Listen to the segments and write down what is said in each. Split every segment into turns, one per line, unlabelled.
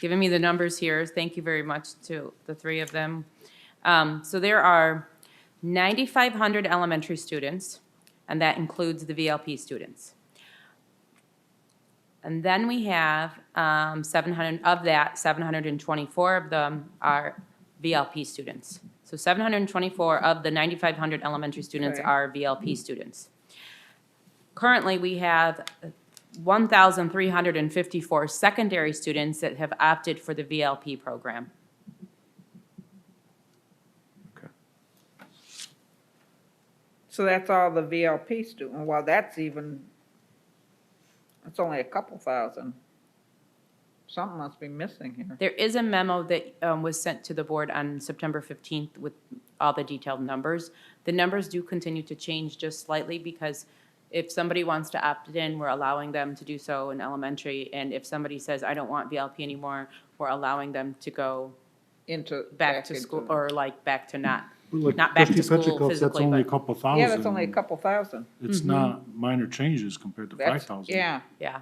given me the numbers here. Thank you very much to the three of them. Um, So there are 9,500 elementary students, and that includes the VLP students. And then we have um, 700, of that, 724 of them are VLP students. So 724 of the 9,500 elementary students
Correct.
are VLP students. Currently, we have 1,354 secondary students that have opted for the VLP program.
So that's all the VLP student, well, that's even, it's only a couple thousand. Something must be missing here.
There is a memo that um, was sent to the board on September 15th with all the detailed numbers. The numbers do continue to change just slightly because if somebody wants to opt in, we're allowing them to do so in elementary. And if somebody says, I don't want VLP anymore, we're allowing them to go
Into.
back to school
into-
or like back to not.
Like
Not back to
Trustee
school
Petrichoff, That's
physically,
only a
but-
couple thousand.
Yeah, that's only a couple thousand.
It's not minor changes compared to five
That's,
thousand.
yeah,
Yeah.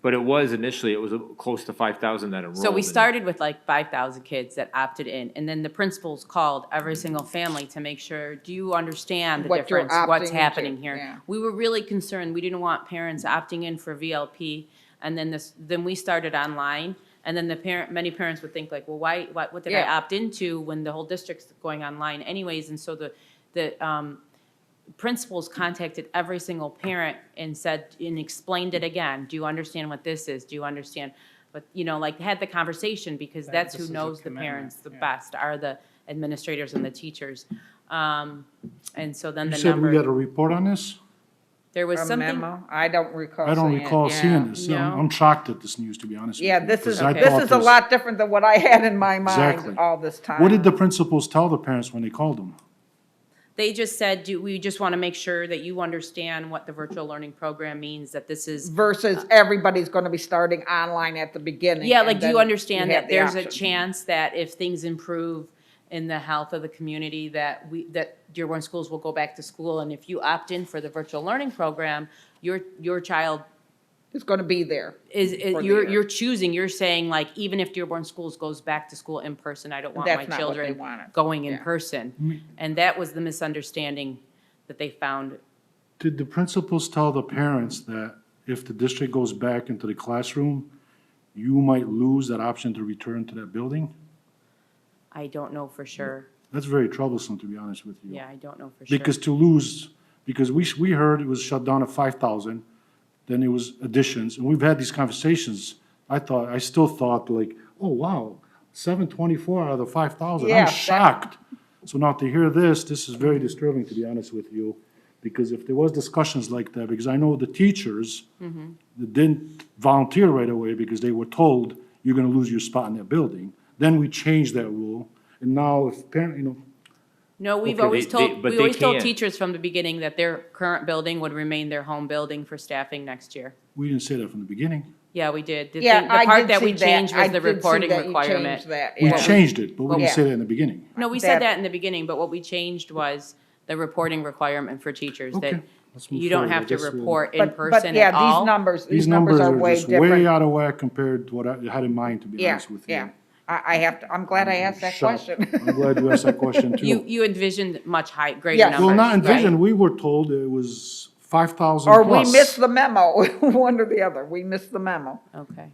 But it was initially, it was uh, close to five thousand that enrolled.
So we
and-
started with like five thousand kids that opted in, and then the principals called every single family to make sure, do you understand the
What you're
difference, what's
opting into,
happening
yeah.
here? We were really concerned, we didn't want parents opting in for VLP, and then this, then we started online, and then the parent, many parents would think like, well, why, what, what did I
Yeah.
opt into when the whole district's going online anyways, and so the, the, um, principals contacted every single parent and said, and explained it again, do you understand what this is, do you understand? But, you know, like, had the conversation, because that's who
this is a
knows the
commitment,
parents the
yeah.
best, are the administrators and the teachers. Um, and so then
You
the
said we got a
number,
report on this?
there was
a
something,
memo, I don't recall
I don't
seeing it,
recall
yeah.
seeing this. I'm
No.
I'm shocked at this news, to be honest with you.
Yeah, this is,
because I thought
this is a lot different than what I had in my
Exactly.
mind all this time.
What did the principals tell the parents when they called them?
they just said, do, we just want to make sure that you understand what the virtual learning program means, that this is
Versus everybody's gonna be starting online at the beginning.
Yeah,
Mm-hmm. and
like, do
then
you understand
have
that
the
there's a
option.
chance that if things improve in the health of the community, that we, that Dearborn schools will go back to school, and if you opt in for the virtual learning program, your, your child
It's gonna be there.
is,
For
is-
the
you're,
year.
you're choosing, you're saying like, even if Dearborn schools goes back to school in person, I don't want
That's
my
not what they
children
wanted.
going in
Yeah.
person. And that was the misunderstanding that they found.
Did the principals tell the parents that if the district goes back into the classroom, you might lose that option to return to that building?
I don't know for
Mm-hmm.
sure.
That's very troublesome, to be honest with you.
Yeah, I don't know for sure.
Because to lose, because we, sh- we heard it was shut down at five thousand, then it was additions, and we've had these conversations. I thought, I still thought like, oh, wow, seven twenty-four out of the five thousand,
Yeah,
I'm
that-
shocked. So now to hear this, this is very disturbing, to be honest with you, because if there was discussions like that, because I know the teachers
Mm-hmm.
that didn't volunteer right away because they were told, you're gonna lose your spot in that building. Then we changed that rule, and now if parent, you know,
No, we've
Okay, they-
always
they-
told,
but
we
they
always told
can't.
teachers from the beginning that their current building would remain their home building for staffing next year.
we didn't say that from the beginning.
Yeah, we did. The
Yeah,
thing- the
I
part
did
that we
see that.
changed
I
was the
did see
reporting
that you changed
requirement.
that,
We
yeah.
changed it, but we didn't
Yeah.
say that in the beginning.
No, we
That-
said that in the beginning, but what we changed was the reporting requirement for teachers
Okay,
that
let's move
you don't
forward. I
have to
guess we'll-
report in
But- But
person
yeah,
at
these
all.
numbers,
These numbers are just way out of whack compared to what I had in mind, to be
Yeah,
honest with you.
yeah. I, I have to, I'm glad I
Mm-hmm.
asked that
Shocked.
question.
I'm glad you asked that question
You,
too.
you envisioned much high, greater
Yes.
numbers.
Well, not
right?
envisioned, we were told it was five thousand
Or we
plus.
missed the memo, one or the other. We missed the memo.
Okay.
um,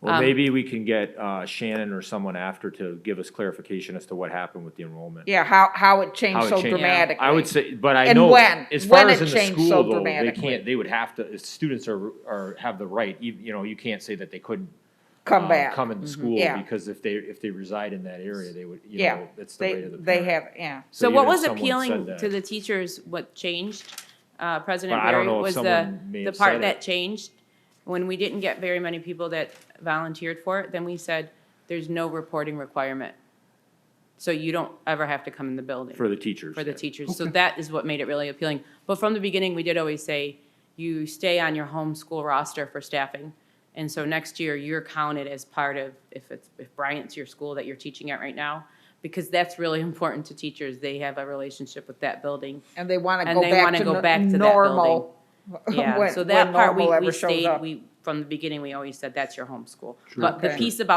Well, maybe we can get uh, Shannon or someone after to give us clarification as to what happened with the enrollment.
Yeah, how, how it
How
changed
it
so
changed.
dramatically.
I would say, but I
And
know,
when?
as far
When
as
it
in the
changed so
school though, they
dramatically.
can't, they would have to, students are, are, have the right, you you know, you can't say that they couldn't
Come
um,
back. Mm-hmm.
Come into school,
Yeah.
because if they, if they reside in that area, they would, you
Yeah,
know, that's the
they,
right of the
they
parent.
have, yeah.
So
even
what
if
was
someone said
appealing
that-
to the teachers, what changed, uh, President
But I don't
Barry,
know if
was the,
someone may
the
have said
part
it.
that changed? When we didn't get very many people that volunteered for it, then we said, there's no reporting requirement. So you don't ever have to come in the building
For the teachers.
for the teachers. So that is what made it really appealing. But from the beginning, we did always say, you stay on your home school roster for staffing. And so next year, you're counted as part of, if it's, if Bryant's your school that you're teaching at right now, because that's really important to teachers. They have a relationship with that building.
And they want to
And
go
they
back
wanna
to
go
no-
back to that
normal.
Yeah,
when-
so
when
that part, we,
normal ever
we
shows
stayed,
up.
we, from the beginning, we always said, that's your home school. But the
Okay.
piece about